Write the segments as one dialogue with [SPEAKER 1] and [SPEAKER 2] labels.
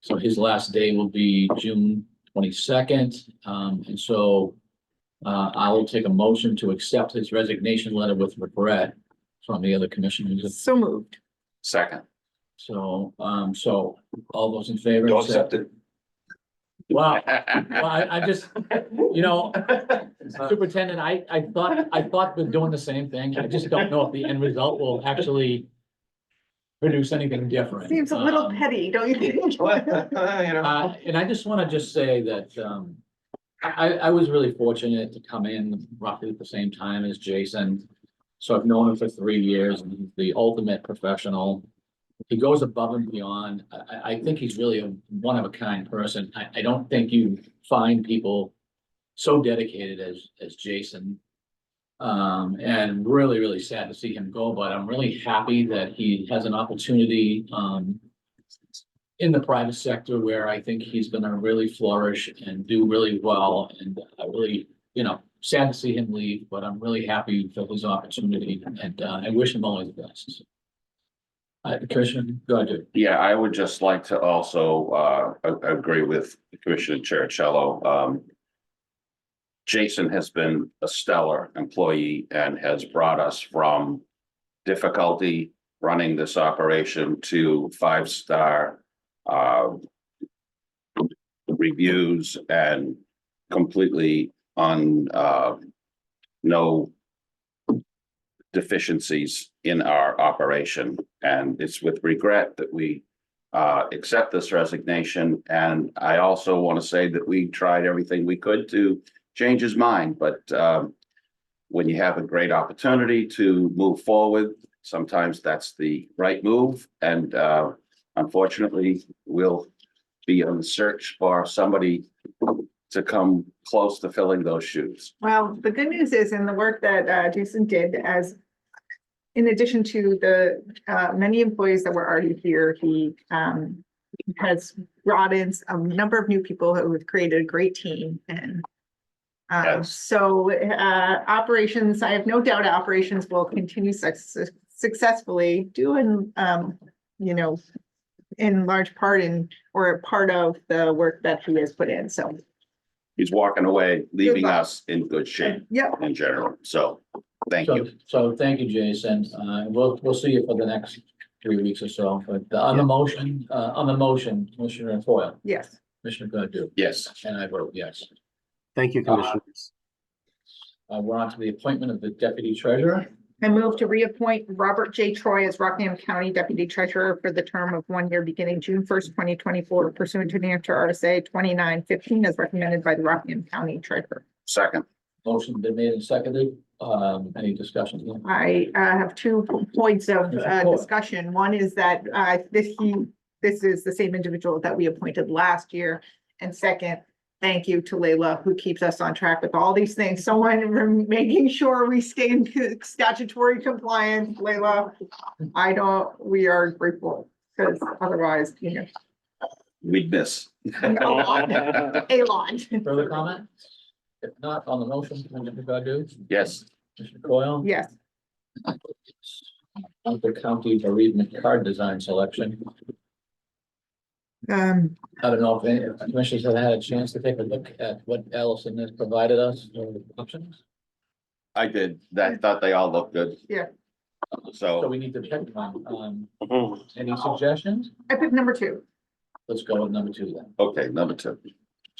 [SPEAKER 1] So his last day will be June twenty-second, um, and so uh, I will take a motion to accept his resignation letter with regret from the other commissioners.
[SPEAKER 2] So moved.
[SPEAKER 3] Second.
[SPEAKER 1] So, um, so all those in favor?
[SPEAKER 3] Don't accept it.
[SPEAKER 1] Wow, well, I, I just, you know, Superintendent, I, I thought, I thought we're doing the same thing. I just don't know if the end result will actually produce anything different.
[SPEAKER 2] Seems a little
[SPEAKER 1] Um,
[SPEAKER 2] petty, don't you think?
[SPEAKER 1] Uh, and I just want to just say that, um, I, I- I was really fortunate to come in roughly at the same time as Jason. So I've known him for three years, and he's the ultimate professional. He goes above and beyond. I, I, I think he's really a one of a kind person. I, I don't think you find people so dedicated as, as Jason. Um, and really, really sad to see him go, but I'm really happy that he has an opportunity, um, in the private sector where I think he's gonna really flourish and do really well. And I really, you know, sad to see him leave, but I'm really happy for his opportunity and uh, I wish him all the best. Uh, Commissioner, go ahead.
[SPEAKER 3] Yeah, I would just like to also, uh, a- agree with Commissioner Cherichello. Um, Jason has been a stellar employee and has brought us from difficulty running this operation to five-star, uh, reviews and completely on, uh, no deficiencies in our operation. And it's with regret that we uh, accept this resignation. And I also want to say that we tried everything we could to change his mind, but um, when you have a great opportunity to move forward, sometimes that's the right move. And uh, unfortunately, we'll be on the search for somebody to come close to filling those shoes.
[SPEAKER 2] Well, the good news is in the work that uh, Jason did as in addition to the uh, many employees that were already here, he um, has brought in a number of new people who have created a great team and um,
[SPEAKER 3] Yes.
[SPEAKER 2] so uh, operations, I have no doubt operations will continue success- successfully doing, um, you know, in large part in, or part of the work that he has put in. So,
[SPEAKER 3] He's walking away, leaving
[SPEAKER 2] luck.
[SPEAKER 3] us in good shape.
[SPEAKER 2] yep.
[SPEAKER 3] in general, so, thank
[SPEAKER 1] So,
[SPEAKER 3] you.
[SPEAKER 1] so thank you, Jason. Uh, we'll, we'll see you for the next three weeks or so, but the- on the motion, uh, on the motion, Commissioner Foil,
[SPEAKER 2] Yes.
[SPEAKER 1] Commissioner Godu,
[SPEAKER 3] Yes,
[SPEAKER 1] and I vote yes.
[SPEAKER 4] Thank you,
[SPEAKER 1] Uh,
[SPEAKER 4] Commissioners.
[SPEAKER 1] Uh, we're on to the appointment of the deputy treasurer.
[SPEAKER 2] I move to reappoint Robert J. Troy as Rockingham County Deputy Treasurer for the term of one year beginning June first, twenty twenty-four pursuant to New Hampshire RSA twenty-nine fifteen as recommended by the Rockingham County Treasurer.
[SPEAKER 3] second,
[SPEAKER 1] Motion been made and seconded. Um, any discussion?
[SPEAKER 2] I uh, have two points of uh, discussion. One is that uh, this, he, this is the same individual that we appointed last year. And second, thank you to Leila, who keeps us on track with all these things. Someone rem- making sure we stay in statutory compliance, Leila. I don't, we are grateful, because otherwise, you know,
[SPEAKER 3] we'd miss.
[SPEAKER 2] a lot.
[SPEAKER 1] Further comment? If not, on the motion, Commissioner Godu?
[SPEAKER 3] Yes,
[SPEAKER 1] Commissioner Coyle?
[SPEAKER 2] Yes,
[SPEAKER 1] Hunter County Bereavement Card Design Selection.
[SPEAKER 2] um,
[SPEAKER 1] I don't know if any if commissioners have had a chance to take a look at what Allison has provided us for options.
[SPEAKER 3] I did, I thought they all looked good.
[SPEAKER 2] Yeah.
[SPEAKER 1] So
[SPEAKER 2] Oh.
[SPEAKER 3] So,
[SPEAKER 1] we need to check on, um,
[SPEAKER 2] Mm-hmm.
[SPEAKER 1] any suggestions?
[SPEAKER 2] I picked number two.
[SPEAKER 1] Let's go with number two then.
[SPEAKER 3] okay, number two,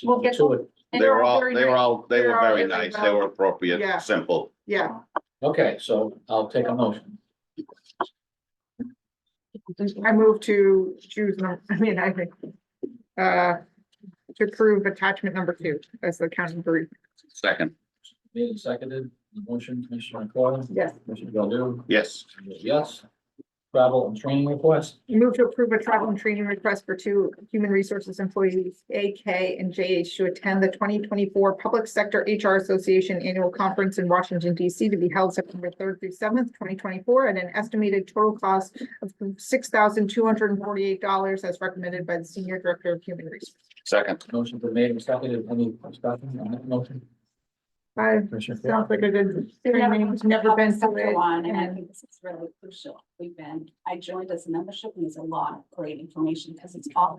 [SPEAKER 2] We'll get-
[SPEAKER 1] Two it.
[SPEAKER 2] And
[SPEAKER 3] they were all,
[SPEAKER 2] very
[SPEAKER 3] they were
[SPEAKER 2] nice.
[SPEAKER 3] all, they
[SPEAKER 2] They're
[SPEAKER 3] were
[SPEAKER 2] all
[SPEAKER 3] very
[SPEAKER 2] really
[SPEAKER 3] nice, they
[SPEAKER 2] well-
[SPEAKER 3] were
[SPEAKER 2] Yeah.
[SPEAKER 3] appropriate, simple.
[SPEAKER 2] Yeah,
[SPEAKER 1] Okay, so I'll take a motion.
[SPEAKER 2] I moved to choose, num- I mean, I think. Uh, to approve attachment number two as the county brief.
[SPEAKER 3] Second,
[SPEAKER 1] Made and seconded, the motion, Commissioner Coyle?
[SPEAKER 2] Yes.
[SPEAKER 1] Commissioner Godu?
[SPEAKER 3] yes,
[SPEAKER 1] Yes. Travel and training request.
[SPEAKER 2] Move to approve a travel and training request for two human resources employees, AK and JH, to attend the twenty twenty-four Public Sector HR Association Annual Conference in Washington DC to be held September third through seventh, twenty twenty-four, at an estimated total cost of six thousand two hundred and forty-eight dollars as recommended by the Senior Director of Human Resources.
[SPEAKER 3] second,
[SPEAKER 1] Motion been made and seconded, any discussion on that motion?
[SPEAKER 2] Five,
[SPEAKER 1] Commissioner Coyle?
[SPEAKER 2] Sounds like a good,
[SPEAKER 5] Never-
[SPEAKER 2] there's never been to
[SPEAKER 5] such a
[SPEAKER 2] it.
[SPEAKER 5] One, and I
[SPEAKER 2] and-
[SPEAKER 5] think this is really crucial. We've been, I joined as a membership and there's a lot of great information because it's all